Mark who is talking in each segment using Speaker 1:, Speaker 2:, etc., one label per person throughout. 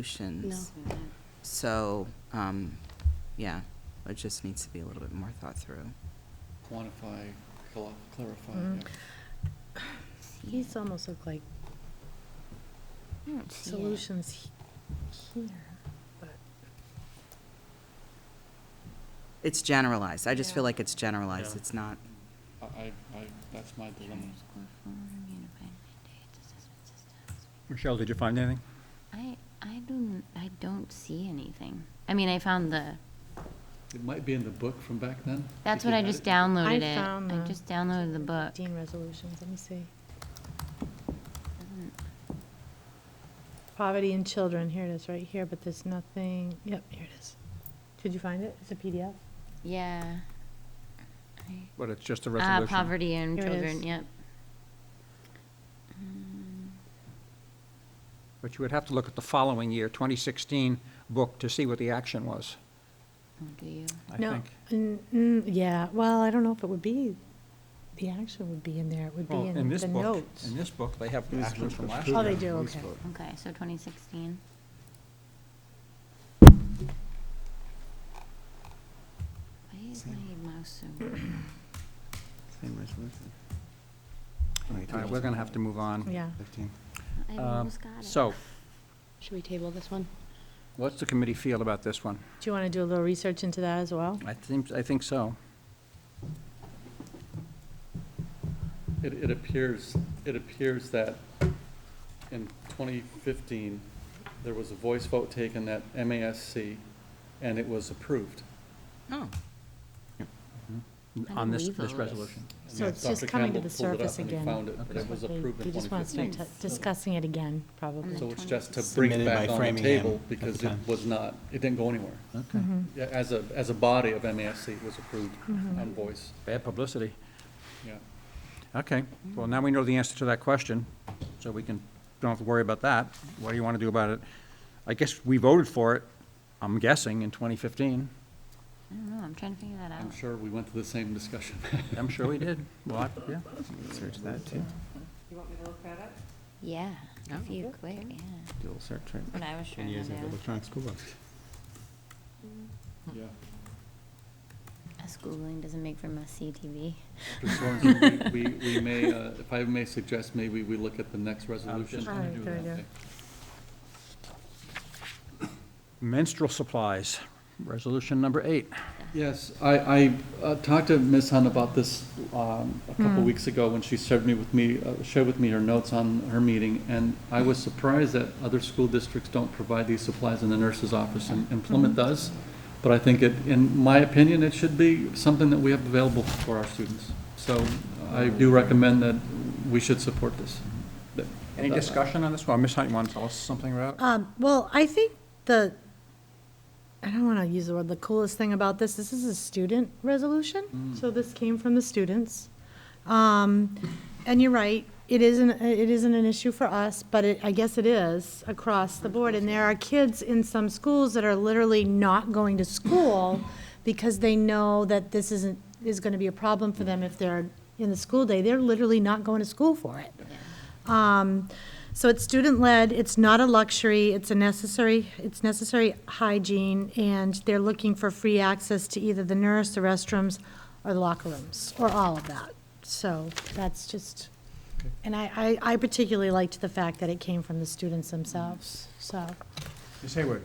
Speaker 1: resolutions. So, um, yeah, it just needs to be a little bit more thought through.
Speaker 2: Quantify, cla- clarify.
Speaker 3: Mm.
Speaker 2: yeah.
Speaker 3: These almost look like
Speaker 4: I don't see it.
Speaker 3: solutions he- here, but.
Speaker 1: It's generalized. I just feel
Speaker 3: Yeah.
Speaker 1: like it's generalized.
Speaker 5: Yeah.
Speaker 1: It's not,
Speaker 2: I, I, I- that's my dilemma.
Speaker 4: Charter school form, unified mandates, assessment systems.
Speaker 6: Michelle, did you find anything?
Speaker 4: I, I don't, I don't see anything. I mean, I found the,
Speaker 2: It might be in the book from back then.
Speaker 4: that's
Speaker 2: if you
Speaker 4: what I
Speaker 2: had
Speaker 4: just
Speaker 2: it.
Speaker 4: downloaded
Speaker 3: I
Speaker 4: it.
Speaker 3: found
Speaker 4: I
Speaker 3: the
Speaker 4: just downloaded the book.
Speaker 3: Dean resolutions, let me see.
Speaker 4: Doesn't-
Speaker 3: Poverty in children, here it is, right here, but there's nothing, yep, here it is. Did you find it? It's a PDF?
Speaker 4: Yeah. I-
Speaker 6: But it's just a
Speaker 4: Ah,
Speaker 6: resolution.
Speaker 4: poverty in
Speaker 3: Here it
Speaker 4: children,
Speaker 3: is.
Speaker 4: yep. Mm,
Speaker 6: But you would have to look at the following year, 2016 book, to see what the action was,
Speaker 4: oh, Do you?
Speaker 6: I
Speaker 3: No,
Speaker 6: think.
Speaker 3: mm, mm, yeah, well, I don't know if it would be, the action would be in there, it would
Speaker 6: Well,
Speaker 3: be in
Speaker 6: this
Speaker 3: the
Speaker 6: book-
Speaker 3: notes.
Speaker 6: In this book, they have
Speaker 7: It was
Speaker 6: actions from last
Speaker 3: Oh,
Speaker 6: year.
Speaker 3: they do, okay.
Speaker 4: Okay, so 2016. Why is my mouse so weird?
Speaker 7: Same resolution.
Speaker 6: All right, we're going to have to move on.
Speaker 3: Yeah.
Speaker 7: Fifteen.
Speaker 4: I
Speaker 2: Uh,
Speaker 6: Um,
Speaker 4: almost got it.
Speaker 6: So,
Speaker 8: Should we table this one?
Speaker 6: what's the committee feel about this one?
Speaker 3: Do you want to do a little research into that as well?
Speaker 6: I think, I think so.
Speaker 2: It, it appears, it appears that in 2015, there was a voice vote taken at MASC, and it was approved.
Speaker 1: oh,
Speaker 4: How
Speaker 6: On
Speaker 4: did
Speaker 6: this,
Speaker 4: we
Speaker 6: this
Speaker 4: vote?
Speaker 6: resolution.
Speaker 2: And
Speaker 3: So it's
Speaker 2: Dr.
Speaker 3: just coming to
Speaker 2: Campbell
Speaker 3: the
Speaker 2: pulled it up
Speaker 3: surface
Speaker 2: and he
Speaker 3: again.
Speaker 2: found it, but
Speaker 6: Okay.
Speaker 2: it was approved
Speaker 3: They
Speaker 2: in
Speaker 3: just want to
Speaker 2: 2015.
Speaker 3: start t- discussing it again,
Speaker 4: Mm-hmm.
Speaker 3: probably.
Speaker 2: So it's just to bring it
Speaker 7: Submitted by
Speaker 2: back on the
Speaker 7: Framingham
Speaker 2: table
Speaker 7: at the
Speaker 2: because it
Speaker 7: time.
Speaker 2: was not, it didn't go anywhere.
Speaker 7: Okay.
Speaker 3: Mm-hmm.
Speaker 2: Yeah, As a, as a body of MASC, it was approved on voice,
Speaker 6: Bad publicity.
Speaker 2: yeah.
Speaker 6: Okay, well, now we know the answer to that question, so we can, don't have to worry about that. What do you want to do about it? I guess we voted for it, I'm guessing, in 2015.
Speaker 4: I don't know, I'm trying to figure that out.
Speaker 2: I'm sure we went to the same discussion.
Speaker 6: I'm sure we did. Well, I- yeah.
Speaker 7: Search that too.
Speaker 4: Yeah,
Speaker 1: Oh.
Speaker 4: if you quit, yeah.
Speaker 7: Dual search right
Speaker 4: That's what I was
Speaker 7: Ten
Speaker 4: trying to
Speaker 7: years
Speaker 4: do.
Speaker 7: of electronic school books.
Speaker 2: Yeah.
Speaker 4: A schooling doesn't make for messy TV.
Speaker 2: Dr. Sorensen, We, we- we may, uh, if I may suggest, maybe we look at the next resolution.
Speaker 6: just
Speaker 3: gonna Alright, do good that. idea.
Speaker 6: Menstrual supplies, resolution number eight.
Speaker 2: Yes, I, I uh, talked to Ms. Hunt about this um, a couple weeks ago when she shared me with me, uh, shared with me her notes on her meeting, and I was surprised that other school districts don't provide these supplies in the nurse's office, and and Plymouth does, but I think it, in my opinion, it should be something that we have available for our students. So I do recommend that we should support this. That-
Speaker 6: Any discussion on this one? Ms. Hunt, you want to tell us something about? it?
Speaker 3: Um, well, I think the, I don't want to use the word, the coolest thing about this, this is a student resolution. So this came from the students. Um, and you're right, it isn't, it isn't an issue for us, but it, I guess it is across the board. And there are kids in some schools that are literally not going to school because they know that this isn't, is going to be a problem for them if they're in the school day. They're literally not going to school for it. Um, so it's student-led, it's not a luxury, it's a necessary, it's necessary hygiene, and they're looking for free access to either the nurse, the restrooms, or the locker rooms, or all of that. So that's just, and I, I I particularly liked the fact that it came from the students themselves, so.
Speaker 6: Ms. Hayward?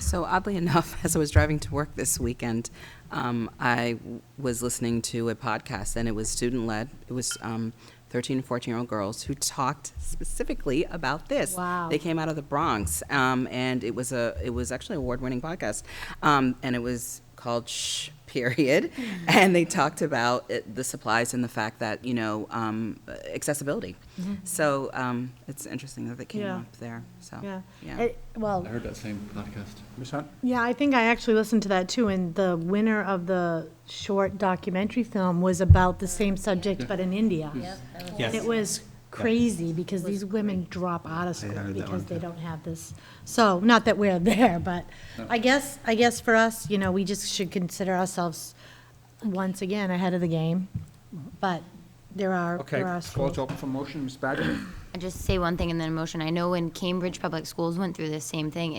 Speaker 1: So oddly enough, as I was driving to work this weekend, um, I w- was listening to a podcast, and it was student-led. It was um, 13 and 14-year-old girls who talked specifically about this.
Speaker 3: Wow.
Speaker 1: They came out of the Bronx, um, and it was a it was actually an award-winning podcast, um, and it was called Shh Period, and they talked about it, the supplies and the fact that you know um, accessibility. So um, it's interesting that they came
Speaker 3: Mm-hmm. Yeah.
Speaker 1: up there. So
Speaker 3: It- Well,
Speaker 2: I heard that same podcast.
Speaker 6: Ms. Hunt?
Speaker 3: Yeah, I think I actually listened to that too, and the winner of the short documentary film was about the same subject, but in India. And it was crazy, because these women drop out of school
Speaker 7: heard that
Speaker 3: because
Speaker 7: one,
Speaker 3: they
Speaker 7: too.
Speaker 3: don't have this. So, not that we're there, but I guess, I guess for us, you know, we just should consider ourselves, once again, ahead of the game. But there are,
Speaker 6: Okay,
Speaker 3: there are
Speaker 6: floor's
Speaker 3: schools.
Speaker 6: open for motion, Ms. Badger?
Speaker 4: I just say one thing and then a motion. I know when Cambridge Public Schools went through this same thing,